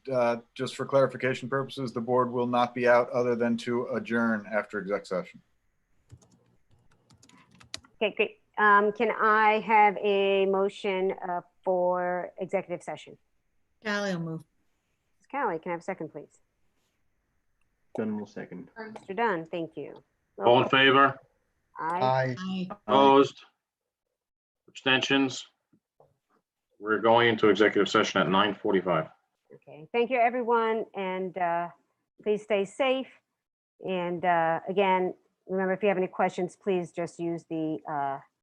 uh, just for clarification purposes, the board will not be out other than to adjourn after exec session. Okay, great. Um, Can I have a motion uh, for executive session? Callie will move. Ms. Callie, can I have a second, please? Dunn will second. Mr. Dunn, thank you. Oh, Roll All in call. favor? Aye. Aye. Aye. Opposed? Abstentions? We're going into executive session at 9:45. Okay, thank you, everyone, and uh, please stay safe. And uh, again, remember, if you have any questions, please just use the uh,